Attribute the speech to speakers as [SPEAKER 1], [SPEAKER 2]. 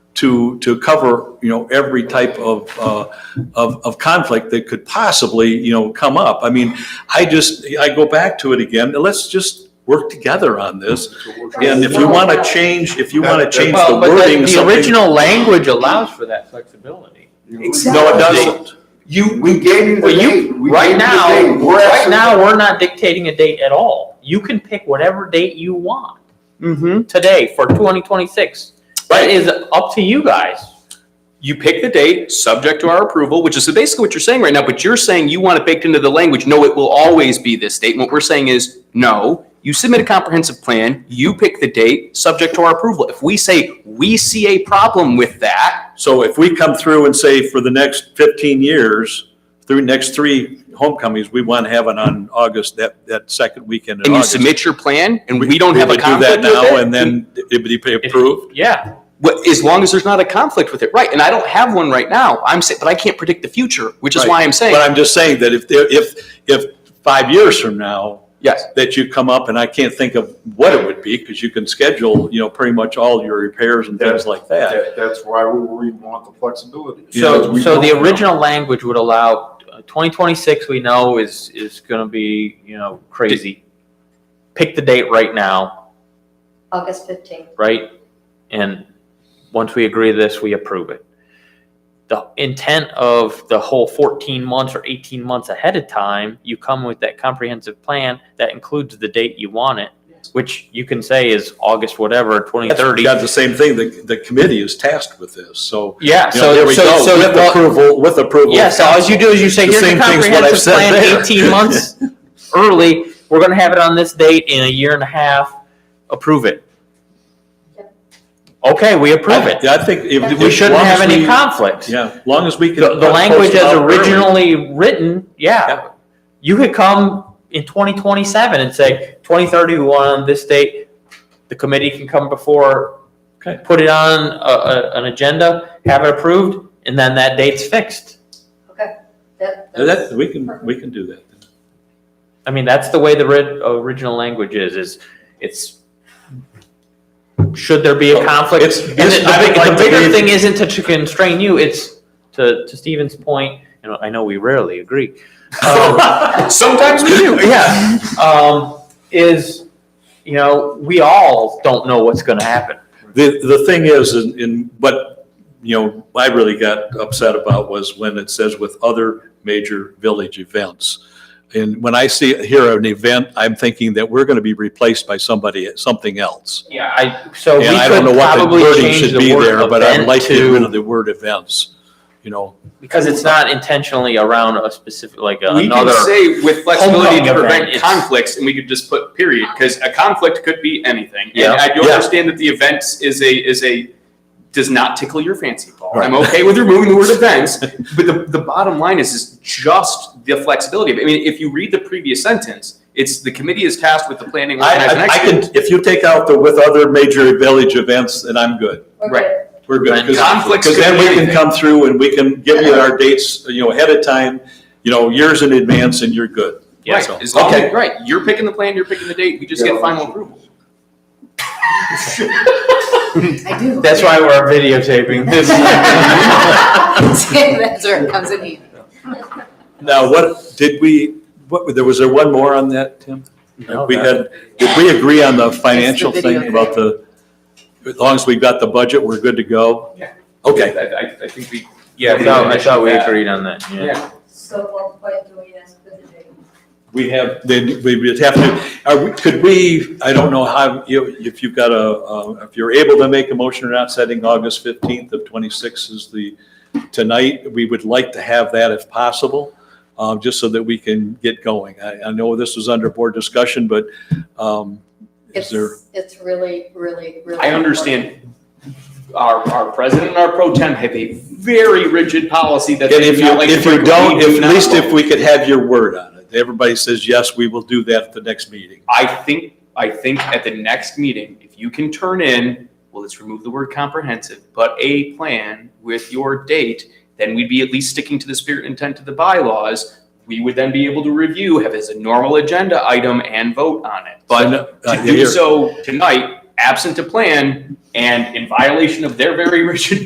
[SPEAKER 1] to, to cover, you know, every type of, uh, of, of conflict that could possibly, you know, come up. I mean, I just, I go back to it again, let's just work together on this. And if you want to change, if you want to change the
[SPEAKER 2] Well, but
[SPEAKER 1] wording,
[SPEAKER 2] the, the
[SPEAKER 1] something.
[SPEAKER 2] original language allows for that flexibility.
[SPEAKER 1] No, it doesn't.
[SPEAKER 2] You,
[SPEAKER 3] We gave you the
[SPEAKER 2] well,
[SPEAKER 3] date.
[SPEAKER 2] you,
[SPEAKER 3] We
[SPEAKER 2] right
[SPEAKER 3] gave you the
[SPEAKER 2] now,
[SPEAKER 3] date. We're
[SPEAKER 2] right
[SPEAKER 3] asking-
[SPEAKER 2] now, we're not dictating a date at all. You can pick whatever date you want
[SPEAKER 4] Mm-hmm.
[SPEAKER 2] today for twenty twenty-six. That is up to you guys.
[SPEAKER 4] You pick the date, subject to our approval, which is basically what you're saying right now, but you're saying you want it baked into the language, no, it will always be this date. And What we're saying is, no, you submit a comprehensive plan, you pick the date, subject to our approval. If we say, we see a problem with that,
[SPEAKER 1] So if we come through and say for the next fifteen years, through next three homecomings, we want to have it on August, that, that second weekend in
[SPEAKER 4] and you
[SPEAKER 1] August.
[SPEAKER 4] submit your plan, and we don't have a
[SPEAKER 1] would do
[SPEAKER 4] conflict
[SPEAKER 1] that
[SPEAKER 4] with
[SPEAKER 1] now,
[SPEAKER 4] it,
[SPEAKER 1] And then it would be approved.
[SPEAKER 2] Yeah,
[SPEAKER 4] Well, as long as there's not a conflict with it, right? And I don't have one right now. I'm saying, but I can't predict the future, which is why I'm saying,
[SPEAKER 1] But I'm just saying that if, there- if, if five years from now,
[SPEAKER 4] yes.
[SPEAKER 1] that you come up, and I can't think of what it would be, because you can schedule, you know, pretty much all your repairs and things like that.
[SPEAKER 3] That- That's why we, we want the flexibility. Because
[SPEAKER 2] so,
[SPEAKER 3] we
[SPEAKER 2] so the
[SPEAKER 3] don't know.
[SPEAKER 2] original language would allow, uh, twenty twenty-six, we know is, is gonna be, you know, crazy. Pick the date right now,
[SPEAKER 5] August fifteenth.
[SPEAKER 2] right? And once we agree to this, we approve it. The intent of the whole fourteen months or eighteen months ahead of time, you come with that comprehensive plan that includes the date you want it, which you can say is August whatever, twenty thirty.
[SPEAKER 1] You got the same thing, the, the committee is tasked with this, so,
[SPEAKER 2] Yeah,
[SPEAKER 1] you know, there
[SPEAKER 2] so,
[SPEAKER 1] we
[SPEAKER 2] so,
[SPEAKER 1] go,
[SPEAKER 2] so,
[SPEAKER 1] with
[SPEAKER 2] well,
[SPEAKER 1] approval, with approval.
[SPEAKER 2] yeah, so all you do is you say,
[SPEAKER 1] The
[SPEAKER 2] here's the
[SPEAKER 1] same thing's what I've
[SPEAKER 2] comprehensive
[SPEAKER 1] said
[SPEAKER 2] plan,
[SPEAKER 1] there.
[SPEAKER 2] eighteen months early, we're gonna have it on this date in a year and a half, approve it.
[SPEAKER 5] Yep.
[SPEAKER 2] Okay, we approve it.
[SPEAKER 1] Yeah, I think. if-
[SPEAKER 2] We
[SPEAKER 1] as
[SPEAKER 2] shouldn't
[SPEAKER 1] long
[SPEAKER 2] have
[SPEAKER 1] as
[SPEAKER 2] any
[SPEAKER 1] we-
[SPEAKER 2] conflicts.
[SPEAKER 1] Yeah, as long as we can.
[SPEAKER 2] The, the language
[SPEAKER 1] post it
[SPEAKER 2] as
[SPEAKER 1] out early.
[SPEAKER 2] originally written,
[SPEAKER 1] Yeah.
[SPEAKER 2] yeah. You could come in twenty twenty-seven and say, twenty thirty, we want on this date. The committee can come before,
[SPEAKER 1] Okay.
[SPEAKER 2] put it on a, a, an agenda, have it approved, and then that date's fixed.
[SPEAKER 5] Okay. That,
[SPEAKER 1] That, we can, we can do that.
[SPEAKER 2] I mean, that's the way the ri- original language is, is it's, should there be a conflict?
[SPEAKER 1] Oh, It's-
[SPEAKER 2] And
[SPEAKER 1] it's-
[SPEAKER 2] the-
[SPEAKER 1] I
[SPEAKER 2] the
[SPEAKER 1] would
[SPEAKER 2] big-
[SPEAKER 1] like
[SPEAKER 2] the
[SPEAKER 1] to
[SPEAKER 2] bigger
[SPEAKER 1] leave-
[SPEAKER 2] thing isn't to- to constrain you, it's to, to Stephen's point, you know, I know we rarely agree. Um,
[SPEAKER 4] Sometimes we do.
[SPEAKER 2] yeah, um, is, you know, we all don't know what's gonna happen.
[SPEAKER 1] The, the thing is, in, in what, you know, I really got upset about was when it says with other major village events. And when I see, hear an event, I'm thinking that we're gonna be replaced by somebody, something else.
[SPEAKER 2] Yeah, I, so we
[SPEAKER 1] And I don't know
[SPEAKER 2] could
[SPEAKER 1] what the
[SPEAKER 2] probably
[SPEAKER 1] wording
[SPEAKER 2] change
[SPEAKER 1] should
[SPEAKER 2] the
[SPEAKER 1] be there,
[SPEAKER 2] word
[SPEAKER 1] but I'd like
[SPEAKER 2] event
[SPEAKER 1] to get rid of
[SPEAKER 2] to,
[SPEAKER 1] the word events, you know.
[SPEAKER 2] because it's not intentionally around a specific, like
[SPEAKER 4] We can
[SPEAKER 2] another.
[SPEAKER 4] say with flexibility to
[SPEAKER 2] Homecoming event,
[SPEAKER 4] prevent
[SPEAKER 2] it's-
[SPEAKER 4] conflicts, and we could just put period, because a conflict could be anything. And
[SPEAKER 2] Yeah.
[SPEAKER 4] I do
[SPEAKER 1] Yeah.
[SPEAKER 4] understand that the events is a, is a, does not tickle your fancy, Paul. I'm
[SPEAKER 1] Right.
[SPEAKER 4] okay with removing the word events, but the, the bottom line is, is just the flexibility. of it. I mean, if you read the previous sentence, it's the committee is tasked with the planning,
[SPEAKER 1] I,
[SPEAKER 4] organizing,
[SPEAKER 1] I- I
[SPEAKER 4] executing.
[SPEAKER 1] can, if you take out the with other major village events, then I'm good.
[SPEAKER 5] We're
[SPEAKER 4] right.
[SPEAKER 5] good.
[SPEAKER 1] We're good.
[SPEAKER 2] And
[SPEAKER 4] conflicts
[SPEAKER 1] Because then
[SPEAKER 4] could be
[SPEAKER 1] we can
[SPEAKER 4] anything.
[SPEAKER 1] come through and we can give you our dates, you know, ahead of time, you know, years in advance and you're good.
[SPEAKER 2] Yeah,
[SPEAKER 4] Right,
[SPEAKER 1] so-
[SPEAKER 4] as long
[SPEAKER 1] okay.
[SPEAKER 4] as- right, you're picking the plan, you're picking the date, we just
[SPEAKER 3] Yeah.
[SPEAKER 4] get final approval.
[SPEAKER 5] I do.
[SPEAKER 2] That's why we're videotaping this.
[SPEAKER 5] That's where it comes in handy.
[SPEAKER 1] Now, what, did we, what, there was there one more on that, Tim?
[SPEAKER 2] No,
[SPEAKER 1] We had,
[SPEAKER 2] that-
[SPEAKER 1] did we agree on the financial
[SPEAKER 5] It's the video
[SPEAKER 1] thing about the, as long as we've got the budget, we're good to go?
[SPEAKER 4] Yeah.
[SPEAKER 1] Okay,
[SPEAKER 4] I, I, I think we.
[SPEAKER 2] Yeah, I thought, I thought we
[SPEAKER 4] Yeah.
[SPEAKER 2] agreed on that, yeah.
[SPEAKER 4] Yeah,
[SPEAKER 5] So what point do we ask for the date?
[SPEAKER 1] we have, then we would have to, are we, could we, I don't know how, you- if you've got a, uh, if you're able to make a motion or not, setting August fifteenth of twenty-six is the, tonight, we would like to have that if possible, um, just so that we can get going. I, I know this was under board discussion, but, um, is
[SPEAKER 5] It's,
[SPEAKER 1] there?
[SPEAKER 5] it's really, really, really.
[SPEAKER 4] I understand our, our president and our pro tem have a very rigid policy that
[SPEAKER 1] And
[SPEAKER 4] they
[SPEAKER 1] if
[SPEAKER 4] do
[SPEAKER 1] you,
[SPEAKER 4] not like. to
[SPEAKER 1] if you
[SPEAKER 4] break.
[SPEAKER 1] don't,
[SPEAKER 4] We do
[SPEAKER 1] if- at
[SPEAKER 4] not
[SPEAKER 1] least
[SPEAKER 4] like-
[SPEAKER 1] if we could have your word on it. Everybody says, yes, we will do that at the next meeting.
[SPEAKER 4] I think, I think at the next meeting, if you can turn in, well, let's remove the word comprehensive, but a plan with your date, then we'd be at least sticking to the spirit and intent of the bylaws. We would then be able to review, have as a normal agenda item and vote on it. But
[SPEAKER 1] Uh,
[SPEAKER 4] to do
[SPEAKER 1] here.
[SPEAKER 4] so tonight, absent a plan and in violation of their very rigid